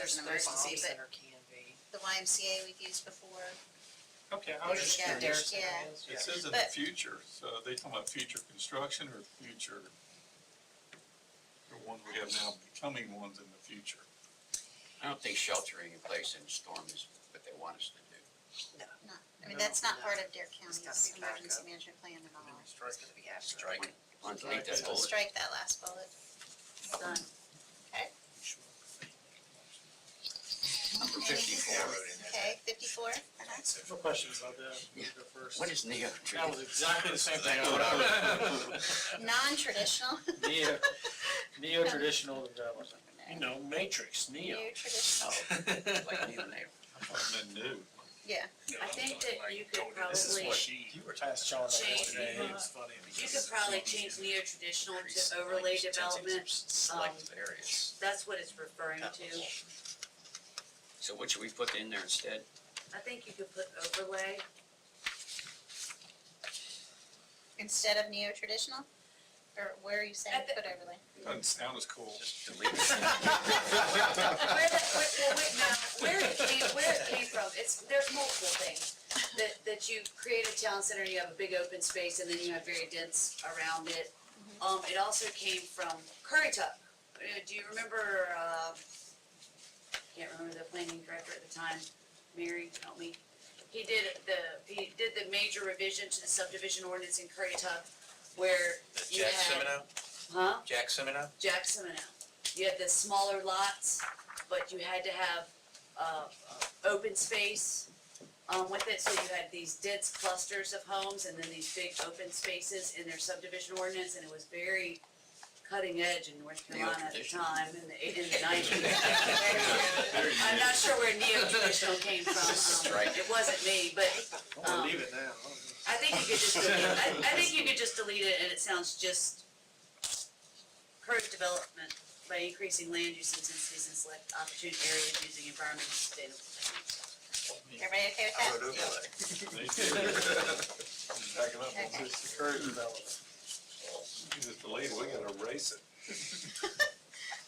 there's an emergency, Bombs but Center can be. the YMCA we've used before. Okay, I was just Yeah, curious. yeah. Yeah. It says in the But- future, so are they talking about future construction or future, the ones we have now becoming ones in the future? I don't think sheltering in place in a storm is what they want us to do. I mean, No, that's not no. part of Dare gotta County's be backup. emergency management plan at all. It's gonna be after. Strike, it. delete that Strike it. bullet. Strike that last bullet. It's done. Number fifty-four. Okay, fifty-four? No questions about that. You go first. What is neo? That was exactly the same thing. I That's would- Non-traditional, Neo, uh, neo-traditional development. You know, matrix, new traditional, Like neonatal. And then new. yeah. I think that you could This is probably, what she. You were tasked John Jane, yesterday. you, uh, funny. you could probably change neo-traditional to overlay development. Selective areas. That's what it's referring to. So what should we put in there instead? I think you could put overlay. Instead of neo-traditional? Or where are you saying At the- put overlay? Doesn't sound as cool. Delete it. Where the, where, well, wait, now, where it came, where it came from, it's, there's multiple things. That, that you create a town center, you have a big open space, and then you have very dense around it. Um, it also came from Curry Tuck. Uh, Do you remember, uh, can't remember the planning director at the time, Mary, help me. He did the, he did the major revision to the subdivision ordinance in Curry Tuck where you Jack had, Semino, huh? Jack Semino, Jackson and out. You had the smaller lots, but you had to have, uh, open space, um, with it, so you had these dense clusters of homes and then these big open spaces in their subdivision ordinance, and it was very cutting edge in North Carolina at the Neo-traditional. time, in the, eight- in the nineties. Very I'm new. not sure where neo-traditional came from, um, Strike. it wasn't me, but I'm gonna um, leave it now. I think you could just delete, I, I think you could just delete it and it sounds just encourage development by increasing land use intensities in select opportune areas using environmental sustainable techniques. Everybody okay with I that? wrote overlay. They do. Backing up, Okay. Just encourage development. you just delayed, we gotta erase it.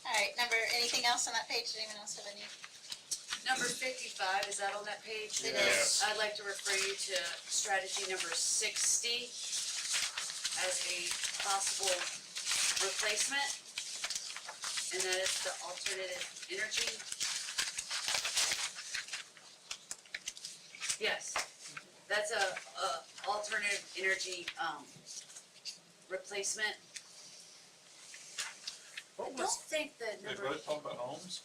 All right, number, anything else on that page? Did anyone else have any? Number fifty-five, is that on that page? It Yes. is. I'd like to refer you to strategy number sixty as a possible replacement. And that is the alternative energy. Yes, that's a, a alternative energy, um, replacement. I What don't was, think the They number, both talk about homes?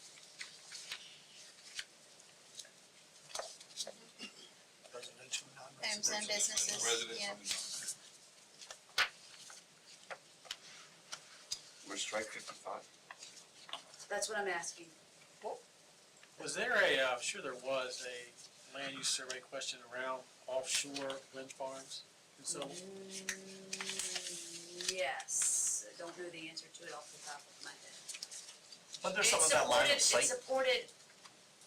Residential, Homes and businesses, yeah. Residents. We're strike fifty-five. that's what I'm asking. was there a, uh, I'm sure there was a land use survey question around offshore wind farms? And so, Mm, Yes, I don't know the answer to it off the top of my head. But It there's something about line of sight, supported- It supported,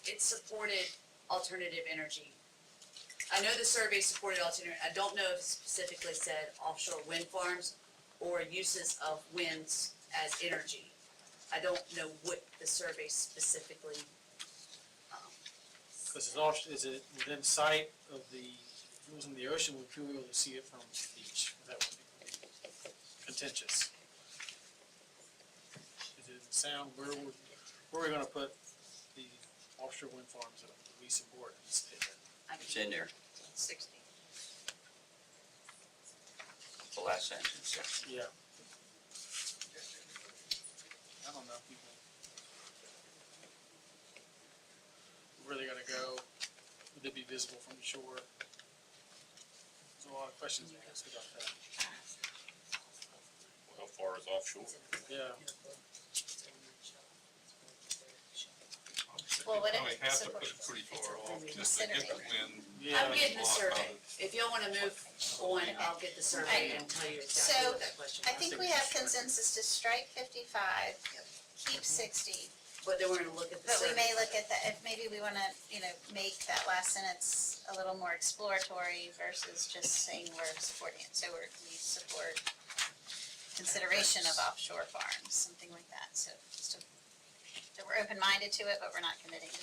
it supported alternative energy. I know the survey supported alternative, I don't know if it specifically said offshore wind farms or uses of winds as energy. I don't know what the survey specifically, um, because it's off, is it within sight of the, if it was in the ocean, would you be able to see it from the beach? Is that what it- contentious? Is it sound, where, would- where are we gonna put the offshore wind farms that we support in this state? I It's can, in there, sixty. the last sentence. yeah. Yeah. I don't know if people. Where they gotta go, would they be visible from the shore? There's a lot of questions to ask about that. How far is offshore? Yeah. Well, what if Probably it have to put supports- it pretty it's far a off, really just to get the considering. wind. Yeah. I'm getting the blocked by survey. If y'all wanna move on, I'll get the survey and tell you exactly what that question I was. think we have consensus to strike fifty-five, keep sixty, But then we're gonna look at the but survey. we may look at that, if maybe we wanna, you know, make that last sentence a little more exploratory versus just saying we're supporting it, so we're, we support consideration of offshore farms, something like that, so just a, that we're open-minded to it, but we're not committing to